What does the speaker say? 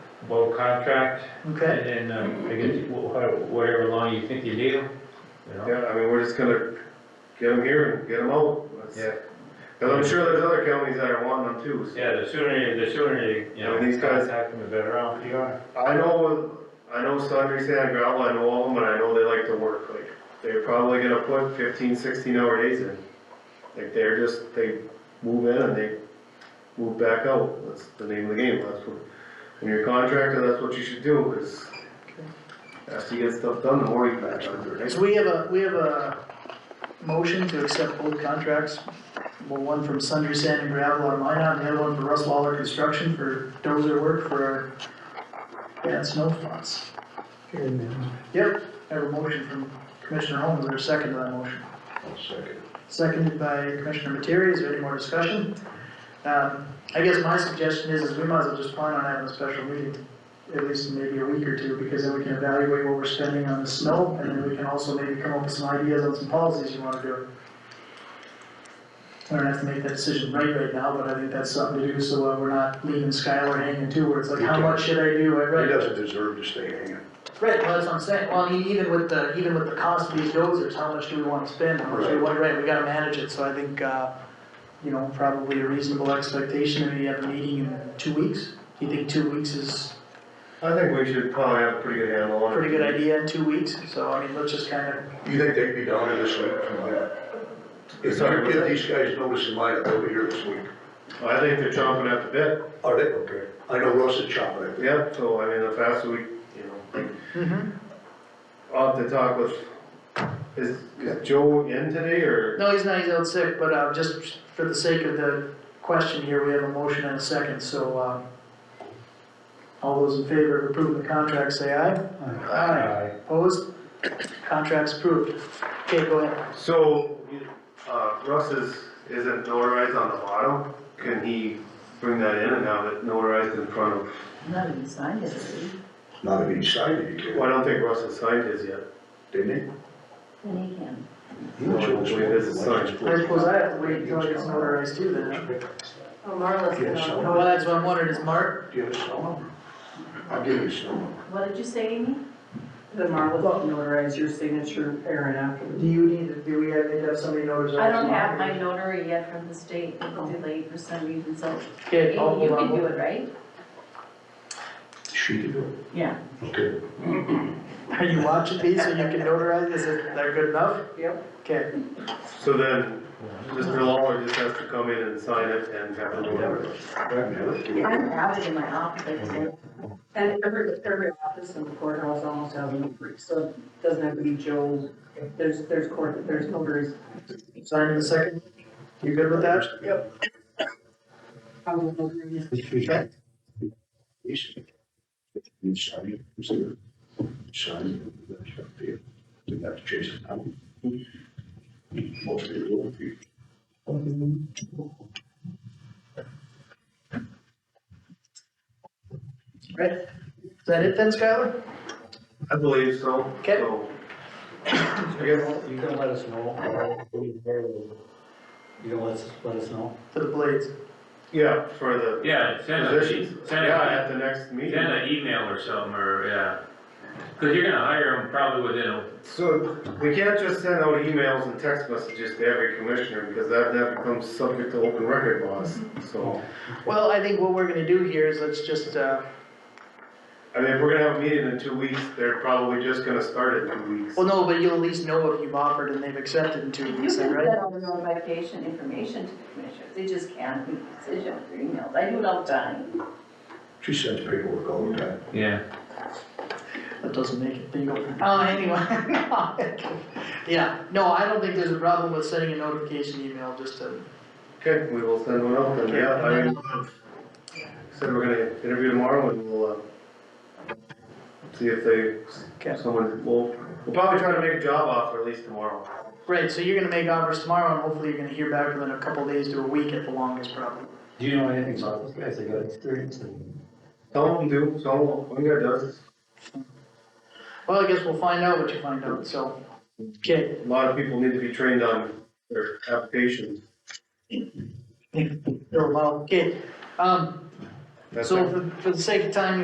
low contract, Okay, and then, um, I guess, wh- how- whatever long you think you need them, you know? Yeah, I mean, we're just gonna get them here and get them out. That's- Yeah. Cause I'm sure there's other counties that are wanting them too, so. Yeah, the sooner, you- the sooner, you you know, Yeah, these guys- contact them, the better off you are. I know, I know Sundry Sand Gravel, I know all of them, and I know they like to work, like, they're probably gonna put 15, 16 hour days in. Like, they're just, they move in and they move back out, that's the name of the game, that's what, when you're a contractor, that's what you should do, is after you get stuff done, the more you back under, right? so we have a, we have a motion to accept both contracts. Well, one from Sundry Sand and Gravel on Minot, and the other one for Russ Lawler Construction for dozer work for our, yeah, snow plots. Yep, I have a motion from Commissioner Holmes, there's a second to that motion. Seconded by Commissioner Materi, is there any more discussion? Um, I guess my suggestion is, is we might as well just plan on having a special meeting, at least maybe a week or two, because then we can evaluate what we're spending on the snow, and then we can also maybe come up with some ideas on some policies you wanna do. I don't have to make that decision right right now, but I think that's something to do, so uh, we're not leaving Skylar hanging too, where it's like, how much should I do, I read. He doesn't deserve to stay hanging. Right, well, that's what I'm saying, well, I mean, even with the, even with the cost of these dozers, how much do we wanna spend, how much do we want, right, we gotta manage it, so I think, uh, you know, probably a reasonable expectation, that we have a meeting in two weeks, do you think two weeks is I think we should probably have a pretty good handle a on it. pretty good idea in two weeks, so, I mean, let's just kinda, You think they'd be down here this week? If you give these guys notice in mind, they'll be here this week. I think they're chomping at the bit, Are they? Okay. I know Russ is chopping it. Yeah, so I mean, the faster we, you know, Mm-hmm. I'll have to talk with, is, is Joe in today or? no, he's not, he's out sick, but, uh, just for the sake of the question here, we have a motion and a second, so, uh, all those in favor of approving the contract, say aye. Aye. Opposed? Contract's approved. Okay, go ahead. So, uh, Russ is, isn't notarized on the bottom, can he bring that in and have it notarized in front of? Not even signed it, already. Not if he signed it, he Well, I did. don't think Russ has signed his yet, Didn't and he can. he? He was No, I believe this is signed. I suppose I have to wait until it gets notarized too then. huh? Oh, Marla's Yes, gonna- so- Well, that's what I'm wondering, is Mark, Do you have his cell number? I'll give you his cell number. What did you say, Amy? The Marla will notarize your signature, Aaron, after do you need, to- do we have, need to have somebody notarize? I don't have my notary yet from the state, it was delayed for some reason, so Okay, Amy, I'll you hold can do on. it, right? She can do Yeah. it. Okay. Are you watching these so you can notarize? Is it, they're good enough? Yep. Okay, so then, Mr. Lawler just has to come in and sign it and have it notarized. Yeah. I don't have it in my office, I just- And every, every office in the courthouse almost has a notary, so it doesn't have to be Joe. There's, there's court, there's notaries. sign in a second. You good with that? Yep. I will notarize. You sign it, consider it. Sign it. That's up to you. Didn't have to chase it out. Most of it will be. Right? Is that it then, Skylar? I believe so. Okay. So, You can, you can let us know, or you can- you can let us, let us know. To the blades. Yeah, for the Yeah, send a, positions, send yeah, a, at the next meeting. send an email or something, or, yeah. Cause you're gonna hire them probably within a So we can't just send out emails and text messages to every commissioner because that, that becomes subject to open record laws. Mm-hmm. So, Well, I think what we're gonna do here is let's just, uh, I mean, if we're gonna have a meeting in two weeks, they're probably just gonna start in two weeks. well, no, but you'll at least know if you've offered and they've accepted in two You can weeks, then, send right? all the notification information to the commissioners, they just can't make decisions through emails, I do it all the time. She sends paperwork all the time. Yeah. That doesn't make it legal. Uh, anyway. Yeah, no, I don't think there's a problem with sending a notification email just to, Okay, we will send one out then, yeah, I mean, said we're gonna interview tomorrow and we'll, uh, see if they, Okay. someone, we'll, we'll probably try to make a job offer at least tomorrow. right, so you're gonna make offers tomorrow and hopefully you're gonna hear back within a couple days to a week at the longest probably. Do you know anything about those guys? They got experience and. Some of them do, some of them, one guy does, Well, I guess we'll find out what you find out, so. Okay, a lot of people need to be trained on their applications. well, okay, um, That's so um, for, for the sake of time,